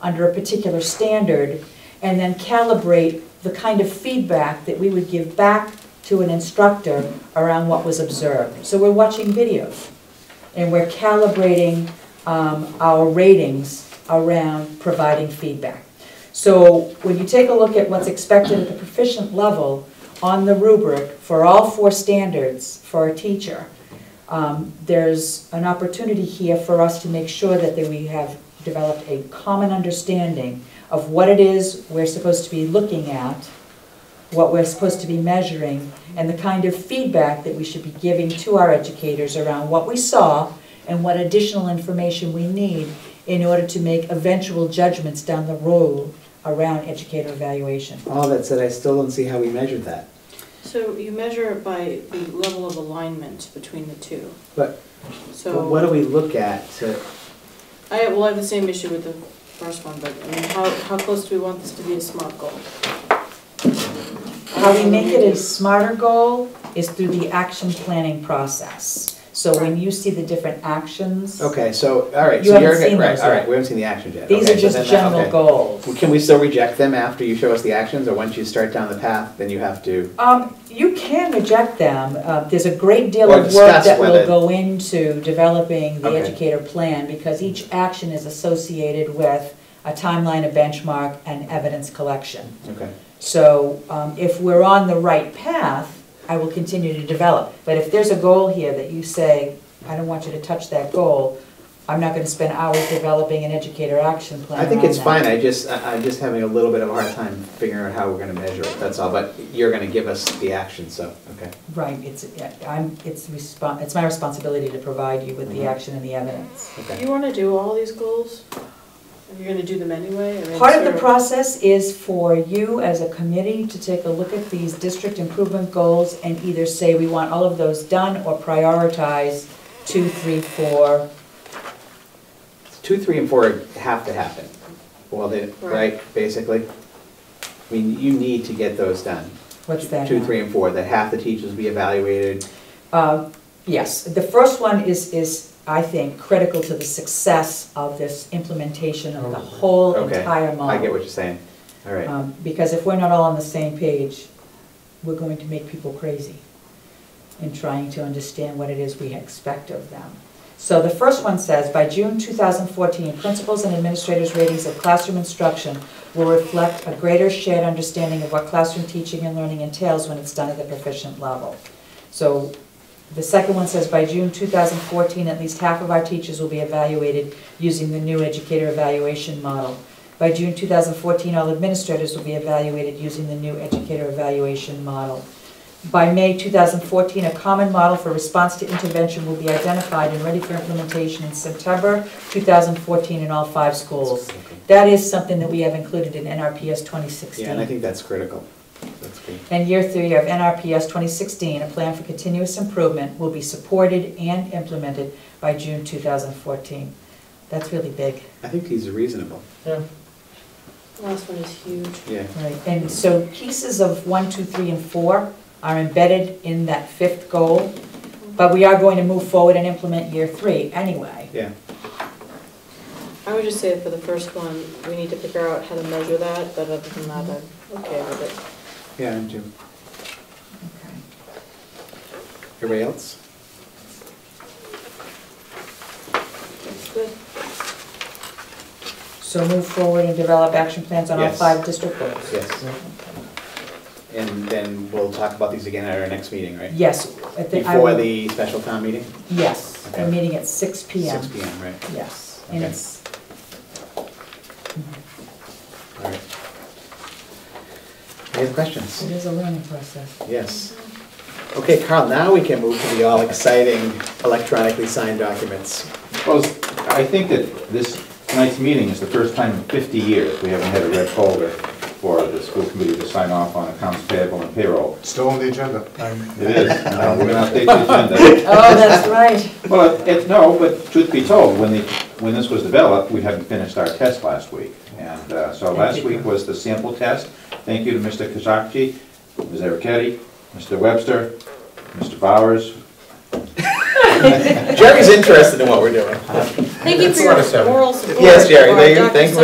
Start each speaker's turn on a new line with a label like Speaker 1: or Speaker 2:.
Speaker 1: under a particular standard, and then calibrate the kind of feedback that we would give back to an instructor around what was observed. So we're watching videos, and we're calibrating um, our ratings around providing feedback. So when you take a look at what's expected at the proficient level on the rubric for all four standards for a teacher, um, there's an opportunity here for us to make sure that that we have developed a common understanding of what it is we're supposed to be looking at, what we're supposed to be measuring, and the kind of feedback that we should be giving to our educators around what we saw and what additional information we need in order to make eventual judgments down the road around educator evaluation.
Speaker 2: All that said, Oh, I still don't see how we measured that.
Speaker 3: So you measure it by the level of alignment between the two.
Speaker 2: But, but what
Speaker 3: So,
Speaker 2: do we look at to,
Speaker 3: I, well, I have the same issue with the first one, but I mean, how, how close do we want this to be a SMART goal?
Speaker 1: How we make it a smarter goal is through the action planning process. So when you see the different actions,
Speaker 2: okay, so, all right,
Speaker 1: You
Speaker 2: so
Speaker 1: haven't
Speaker 2: you're,
Speaker 1: seen
Speaker 2: good- right,
Speaker 1: those
Speaker 2: all
Speaker 1: yet.
Speaker 2: right, we haven't seen the actions yet.
Speaker 1: these
Speaker 2: Okay,
Speaker 1: are
Speaker 2: so
Speaker 1: just
Speaker 2: then that-
Speaker 1: general
Speaker 2: okay.
Speaker 1: goals.
Speaker 2: Well, Can we still reject them after you show us the actions, or once you start down the path, then you have to?
Speaker 1: Um, you can reject them. Uh, there's a great deal
Speaker 2: Or
Speaker 1: of work
Speaker 2: discuss
Speaker 1: that will
Speaker 2: whether-
Speaker 1: go into developing the
Speaker 2: Okay.
Speaker 1: educator plan because each action is associated with a timeline, a benchmark, and evidence collection.
Speaker 2: Okay,
Speaker 1: So, um, if we're on the right path, I will continue to develop. But if there's a goal here that you say, I don't want you to touch that goal, I'm not gonna spend hours developing an educator action plan
Speaker 2: I think
Speaker 1: around
Speaker 2: it's
Speaker 1: that.
Speaker 2: fine, I just, I- I'm just having a little bit of a hard time figuring out how we're gonna measure it, that's all, but you're gonna give us the action, so, okay.
Speaker 1: Right, it's, I'm, it's respon it's my responsibility to provide you with the
Speaker 2: Mhm.
Speaker 1: action and the evidence.
Speaker 2: Okay.
Speaker 3: You wanna do all these goals? If You're gonna do them anyway? I mean,
Speaker 1: Part of the
Speaker 3: sort
Speaker 1: process is for you as a committee to take a look at these district improvement goals and either say we want all of those done or prioritize two, three, four.
Speaker 2: Two, three, and four have to happen, well, they,
Speaker 3: Right.
Speaker 2: right, basically? I mean, you need to get those done.
Speaker 1: What's that
Speaker 2: Two,
Speaker 1: now?
Speaker 2: three, and four, that half the teachers be evaluated,
Speaker 1: Uh, Yes, the first one is, is, I think, critical to the success of this implementation of the whole
Speaker 2: Okay,
Speaker 1: entire model.
Speaker 2: I get what you're saying, all right.
Speaker 1: Um, Because if we're not all on the same page, we're going to make people crazy in trying to understand what it is we expect of them. So the first one says, by June 2014, principals and administrators' ratings of classroom instruction will reflect a greater shared understanding of what classroom teaching and learning entails when it's done at the proficient level. So the second one says, by June 2014, at least half of our teachers will be evaluated using the new educator evaluation model. By June 2014, all administrators will be evaluated using the new educator evaluation model. By May 2014, a common model for response to intervention will be identified and ready for implementation in September 2014 in all five schools. That is something that we have included in NRPS 2016.
Speaker 2: Yeah, and I think that's critical. That's good.
Speaker 1: And year three of NRPS 2016, a plan for continuous improvement will be supported and implemented by June 2014. That's really big,
Speaker 2: I think these are reasonable.
Speaker 3: of- Last one is huge.
Speaker 2: Yeah.
Speaker 1: right? And so pieces of one, two, three, and four are embedded in that fifth goal, but we are going to move forward and implement year three anyway.
Speaker 2: Yeah.
Speaker 3: I would just say for the first one, we need to figure out how to measure that, but other than that, I'm okay with it.
Speaker 2: Yeah, I'm too.
Speaker 1: Okay.
Speaker 2: Everybody else?
Speaker 3: That's good.
Speaker 1: So move forward and develop action plans on all
Speaker 2: Yes.
Speaker 1: five district goals.
Speaker 2: Yes. And then we'll talk about these again at our next meeting, right?
Speaker 1: Yes. at the- I
Speaker 2: Before
Speaker 1: will-
Speaker 2: the special town meeting?
Speaker 1: Yes, we're
Speaker 2: Okay.
Speaker 1: meeting at 6 PM.
Speaker 2: Six P M, right?
Speaker 1: Yes, and
Speaker 2: Okay.
Speaker 1: it's,
Speaker 2: All right. Any other
Speaker 1: it
Speaker 2: questions?
Speaker 1: is a learning process.
Speaker 2: Yes. Okay, Carl, now we can move to the all exciting electronically signed documents.
Speaker 4: Well, I think that this tonight's meeting is the first time in 50 years we haven't had a red folder for the school committee to sign off on accounts payable and payroll.
Speaker 5: Still on the agenda. I'm-
Speaker 4: It is, Uh, we're gonna update the agenda.
Speaker 1: Oh, that's right.
Speaker 4: Well, it, no, but truth be told, when the, when this was developed, we hadn't finished our test last week. And uh, so last week was the sample test. Thank you to Mr. Kazakji, Ms. Ericetti, Mr. Webster, Mr. Bowers,
Speaker 2: Jerry's interested in what we're doing.
Speaker 3: Thank you for
Speaker 5: That's what I said.
Speaker 3: your moral support.
Speaker 2: Yes, Jerry,
Speaker 3: for our
Speaker 2: thank you- thank you.